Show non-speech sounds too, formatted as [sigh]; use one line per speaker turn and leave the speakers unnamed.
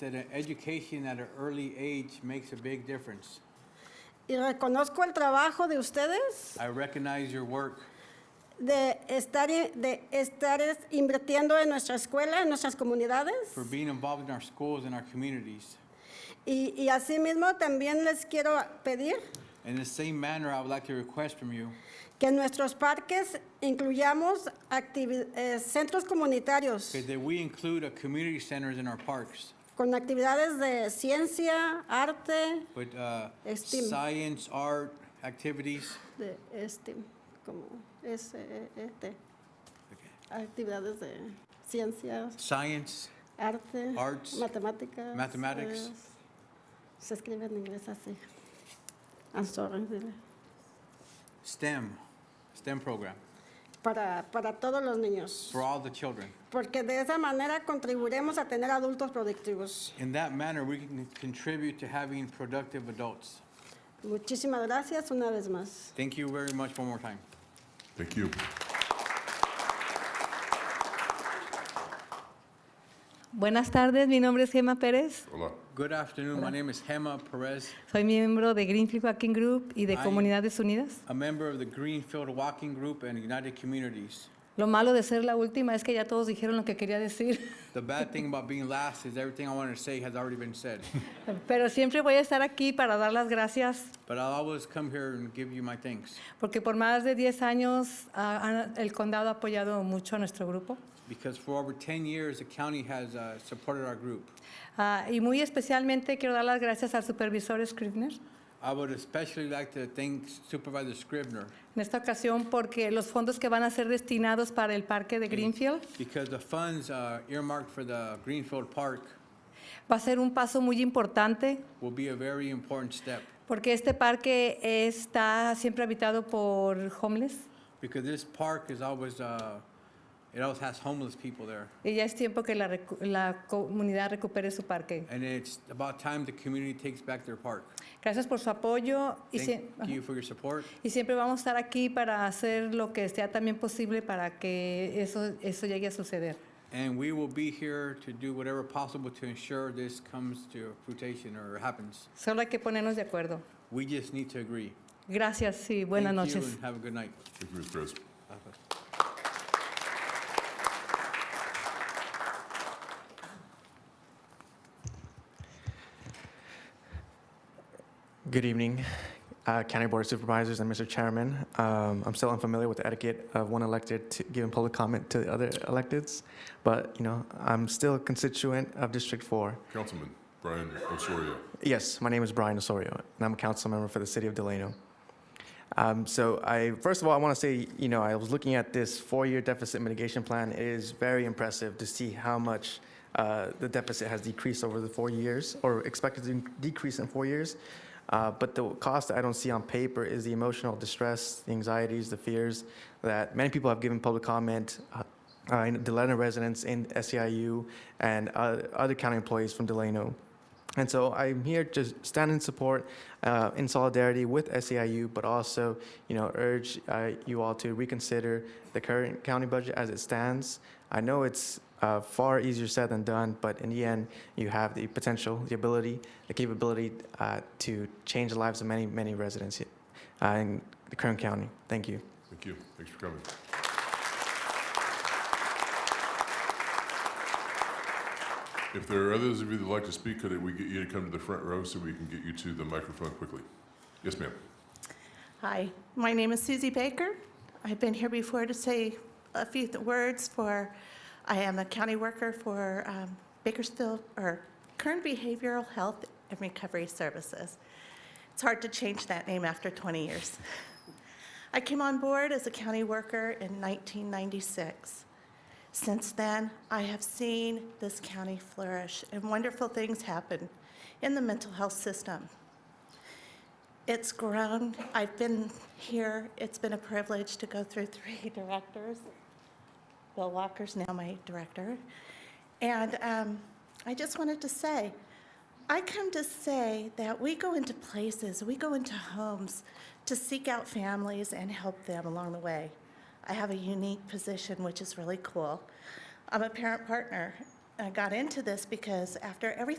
that an education at an early age makes a big difference.
Y reconozco el trabajo de ustedes
I recognize your work
de estar, i- de estar es- invirtiendo en nuestra escuela, en nuestras comunidades.
for being involved in our schools and our communities.
Y, y asimismo también les quiero pedir
In the same manner, I would like to request from you
que en nuestros parques incluyamos activi- eh, centros comunitarios
that we include a community centers in our parks
con actividades de ciencia, arte,
with uh,
Esteem.
science, art, activities.
de este, como es, eh, eh, este, actividades de ciencias,
Science,
arte,
Arts,
matemáticas.
mathematics.
eh, se escribe en inglés así. I'm sorry, dile.
STEM, STEM program
Para, para todos los niños.
for all the children.
Porque de esa manera contribuiremos a tener adultos productivos.
In that manner, we can contribute to having productive adults.
Muchísimas gracias una vez más.
Thank you very much one more time.
Thank you.
Buenas tardes, mi nombre es Gemma Pérez.
Hola.
Good afternoon. My name is Hema Perez,
Soy miembro de Greenfield Walking Group y de
Ay.
Comunidades Unidas.
a member of the Greenfield Walking Group and United Communities.
Lo malo de ser la última es que ya todos dijeron lo que quería decir, [laughs]
The bad thing about being last is everything I wanted to say has already been said.
pero siempre voy a estar aquí para dar las gracias,
But I'll always come here and give you my thanks
porque por más de 10 años ah, han- el condado ha apoyado mucho a nuestro grupo.
because for over 10 years, the county has uh, supported our group.
Ah, y muy especialmente quiero dar las gracias al supervisor Scribner,
I would especially like to thank Supervisor Scribner
en esta ocasión porque los fondos que van a ser destinados para el parque de Greenfield
because the funds uh, earmarked for the Greenfield Park
va a ser un paso muy importante
will be a very important step
Porque este parque está siempre habitado por homeless
because this park is always, uh, it always has homeless people there.
y ya es tiempo que la, recu- la comunidad recupere su parque.
And it's about time the community takes back their park.
Gracias por su apoyo y,
Thank
sie-
you for your support.
y siempre vamos a estar aquí para hacer lo que sea también posible para que eso, eso llegue a suceder.
And we will be here to do whatever possible to ensure this comes to fruition or happens.
Solo hay que ponernos de acuerdo.
We just need to agree.
Gracias y buenas
Thank you
noches.
and have a good night.
Thank you, Mr. Perez.
Good evening, uh, County Board of Supervisors and Mr. Chairman. Um, I'm still unfamiliar with the etiquette of one elected to giving public comment to the other electeds, but, you know, I'm still a constituent of District 4.
Councilman Brian Osorio.
Yes, my name is Brian Osorio, and I'm a council member for the city of Delano. Um, So I, first of all, I want to say, you know, I was looking at this four-year deficit mitigation plan. It is very impressive to see how much uh, the deficit has decreased over the four years, or expected to decrease in four years. Uh, But the cost that I don't see on paper is the emotional distress, the anxieties, the fears that many people have given public comment, uh, uh, in Delano residents in SEIU and uh, other county employees from Delano. And so I'm here to stand in support, uh, in solidarity with SEIU, but also, you know, urge uh, you all to reconsider the current county budget as it stands. I know it's uh, far easier said than done, but in the end, you have the potential, the ability, the capability uh, to change the lives of many, many residents here, uh, in the current county. Thank you.
Thank you. Thanks for coming. If there are others of you that would like to speak, could we get you to come to the front row so we can get you to the microphone quickly? Yes, ma'am.
Hi, my name is Susie Baker. I've been here before to say a few th- words for, I am a county worker for um, Bakersfield, or Kern Behavioral Health and Recovery Services. It's hard to change that name after 20 years. [laughs] I came on board as a county worker in 1996. Since then, I have seen this county flourish, and wonderful things happen in the mental health system. It's grown. I've been here. It's been a privilege to go through three [laughs] directors. Bill Walker's now my director. And um, I just wanted to say, I come to say that we go into places, we go into homes to seek out families and help them along the way. I have a unique position, which is really cool. I'm a parent partner. I got into this because after everything